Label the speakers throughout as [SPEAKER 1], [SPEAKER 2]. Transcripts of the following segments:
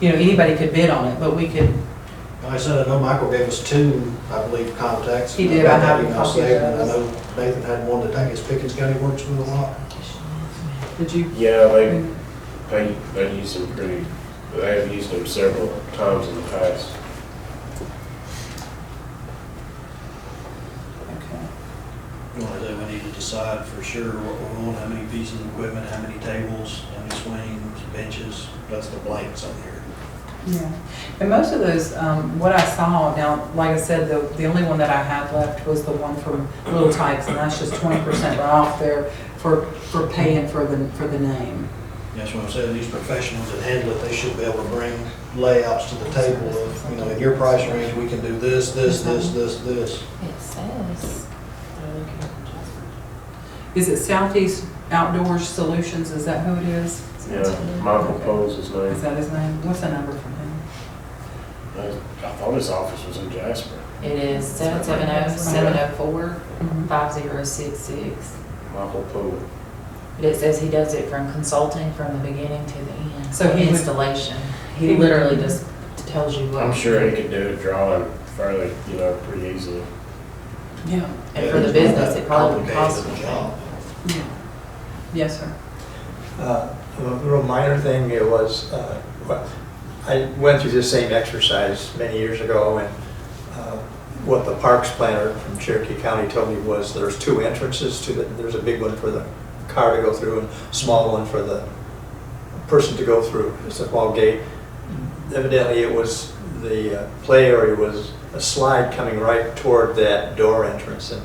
[SPEAKER 1] you know, anybody could bid on it, but we could,
[SPEAKER 2] Like I said, I know Michael gave us two, I believe, contacts.
[SPEAKER 1] He did, I
[SPEAKER 2] I've
[SPEAKER 1] have
[SPEAKER 2] got emails
[SPEAKER 1] copies of
[SPEAKER 2] saved, and I
[SPEAKER 1] those.
[SPEAKER 2] know Nathan had one that I guess Pickens County works with a lot.
[SPEAKER 1] did you?
[SPEAKER 3] Yeah, they, they, they use them pretty, they've used them several times in the past.
[SPEAKER 1] Okay.
[SPEAKER 4] Well, that we need to decide for sure what we want, how many pieces of equipment, how many tables, how many swings, benches, that's the blanks on here.
[SPEAKER 1] Yeah, and most of those, um, what I saw, now, like I said, the, the only one that I had left was the one from Little Tykes, and that's just twenty percent right off there for, for paying for the, for the name.
[SPEAKER 4] That's what I'm saying, these professionals that handle it, they should be able to bring layouts to the table of, you know, in your price range, we can do this, this, this, this, this.
[SPEAKER 5] It says.
[SPEAKER 1] Is it Southeast Outdoors Solutions, is that who it is?
[SPEAKER 3] Yeah, Michael Poe's his
[SPEAKER 1] Is
[SPEAKER 3] name.
[SPEAKER 1] that his name? What's the number from him?
[SPEAKER 3] I I thought his office was in Jasper.
[SPEAKER 5] It is seven seven oh, seven oh four, five zero six six.
[SPEAKER 3] Michael Poe.
[SPEAKER 5] But it says he does it from consulting from the beginning to the end.
[SPEAKER 1] So he would-
[SPEAKER 5] Installation.
[SPEAKER 1] he
[SPEAKER 5] He
[SPEAKER 1] would-
[SPEAKER 5] literally just tells you what.
[SPEAKER 3] I'm sure he could do a drawing fairly, you know, pretty easily.
[SPEAKER 1] Yeah,
[SPEAKER 5] And for the business, it probably would cost.
[SPEAKER 4] Complicated job.
[SPEAKER 1] yeah. Yes, sir.
[SPEAKER 6] Uh, A real minor thing, it was, uh, what- I went through this same exercise many years ago, and uh, what the parks planner from Cherokee County told me was there's two entrances to the, there's a big one for the car to go through and small one for the person to go through. It's a wall gate. Evidently, it was, the uh, play area was a slide coming right toward that door entrance. And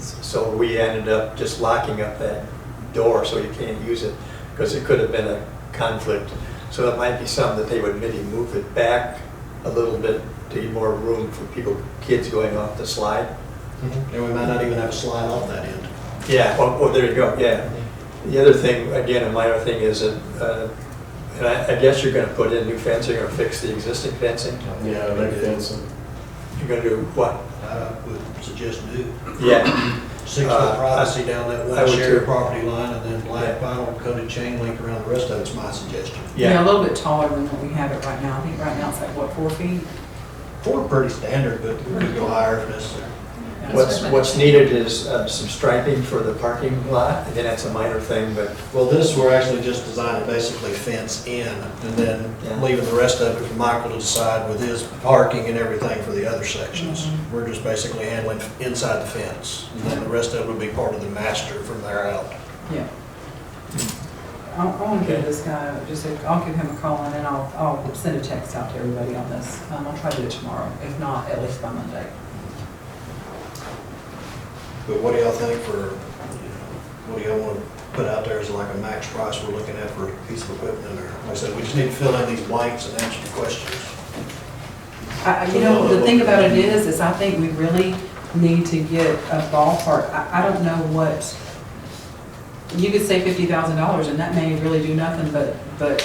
[SPEAKER 6] so we ended up just locking up that door so you can't use it because it could have been a conflict. So it might be something that they would maybe move it back a little bit to give more room for people, kids going off the slide.
[SPEAKER 4] And we might not even have a slide off that end.
[SPEAKER 6] Yeah, oh, oh, there you go, yeah. The other thing, again, a minor thing is that, uh, and I, I guess you're gonna put in new fencing or fix the existing fencing.
[SPEAKER 3] Yeah, they fencing.
[SPEAKER 6] You're gonna do what?
[SPEAKER 4] I would suggest do
[SPEAKER 6] Yeah,
[SPEAKER 4] six
[SPEAKER 6] Uh,
[SPEAKER 4] foot
[SPEAKER 6] I-
[SPEAKER 4] privacy down that
[SPEAKER 6] I
[SPEAKER 4] one
[SPEAKER 6] would
[SPEAKER 4] shared
[SPEAKER 6] too.
[SPEAKER 4] property line and then black
[SPEAKER 6] Yeah.
[SPEAKER 4] vinyl coated chain link around the rest of it's my suggestion.
[SPEAKER 1] Yeah, a
[SPEAKER 6] yeah,
[SPEAKER 1] little bit taller than what we have it right now. I think right now it's like, what, four feet?
[SPEAKER 4] Four pretty standard, but we could go higher if necessary.
[SPEAKER 1] Yeah.
[SPEAKER 6] what's, what's needed is uh, some striping for the parking lot, again, that's a minor thing, but
[SPEAKER 4] Well, this, we're actually just designing basically fence in and then
[SPEAKER 6] Yeah.
[SPEAKER 4] leaving the rest of it for Michael to decide with his parking and everything for the other sections. We're just basically handling inside the fence. And then the rest of it would be part of the master from there out.
[SPEAKER 1] Yeah. I'll, I'll give this guy, just, a- I'll give him a call and then I'll, I'll send a text out to everybody on this. Um, I'll try to do it tomorrow, if not, at least by Monday.
[SPEAKER 4] But what do y'all think for, you know, what do y'all want to put out there as like a max price we're looking at for a piece of equipment in there? Like I said, we just need to fill in these blanks and answer the questions.
[SPEAKER 1] I, I- you know, the thing about it is, is I think we really need to get a ballpark. I, I don't know what, you could say fifty thousand dollars and that may really do nothing but, but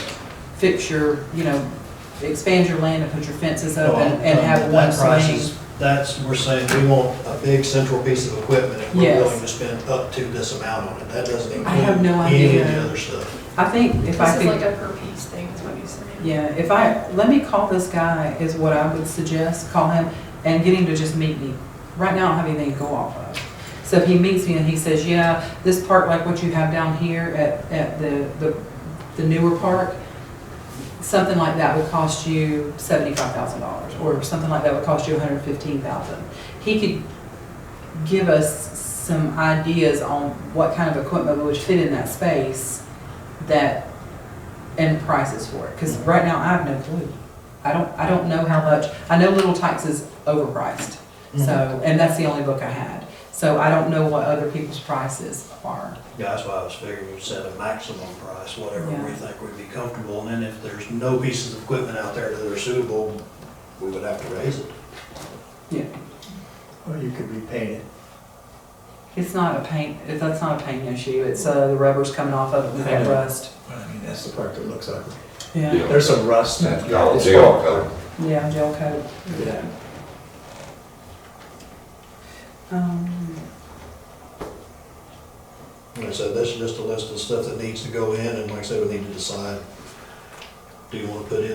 [SPEAKER 1] fix your, you know, expand your land and put your fences up Uh, and, and have
[SPEAKER 4] Well, um,
[SPEAKER 1] one
[SPEAKER 4] that price
[SPEAKER 1] swing.
[SPEAKER 4] is- That's, we're saying we want a big central piece of equipment and we're
[SPEAKER 1] Yes.
[SPEAKER 4] willing to spend up to this amount on it. That doesn't include
[SPEAKER 1] I have no
[SPEAKER 4] any of
[SPEAKER 1] idea.
[SPEAKER 4] the other stuff.
[SPEAKER 1] I think if I
[SPEAKER 7] This
[SPEAKER 1] could.
[SPEAKER 7] is like a per piece thing, is what you said.
[SPEAKER 1] Yeah, if I, let me call this guy is what I would suggest, call him and get him to just meet me. Right now, I don't have anything to go off of. So if he meets me and he says, yeah, this part, like what you have down here at, at the, the the newer park, something like that would cost you seventy-five thousand dollars, or something like that would cost you $115,000. He could give us some ideas on what kind of equipment would fit in that space that, and prices for it, because right now I have no clue. I don't, I don't know how much, I know Little Tykes is overpriced, so, and that's the only book I had. So I don't know what other people's prices are.
[SPEAKER 4] Yeah, that's why I was figuring we'd set a maximum price, whatever we
[SPEAKER 1] Yeah.
[SPEAKER 4] think would be comfortable. And then if there's no pieces of equipment out there that are suitable, we would have to raise it.
[SPEAKER 1] Yeah.
[SPEAKER 6] or you could repaint it.
[SPEAKER 1] It's not a paint, if that's not a paint issue, it's, uh, the rubber's coming off of it with that rust.
[SPEAKER 6] Well, I mean, that's the part that looks ugly.
[SPEAKER 1] Yeah,
[SPEAKER 6] There's some rust.
[SPEAKER 8] That's
[SPEAKER 6] Yeah,
[SPEAKER 8] called
[SPEAKER 6] it's
[SPEAKER 8] gel
[SPEAKER 6] fine.
[SPEAKER 8] coat.
[SPEAKER 1] yeah, gel coat.
[SPEAKER 6] Yeah.
[SPEAKER 1] Um,
[SPEAKER 4] Like I said, this is just a list of stuff that needs to go in and like I said, we need to decide. Do you want to put in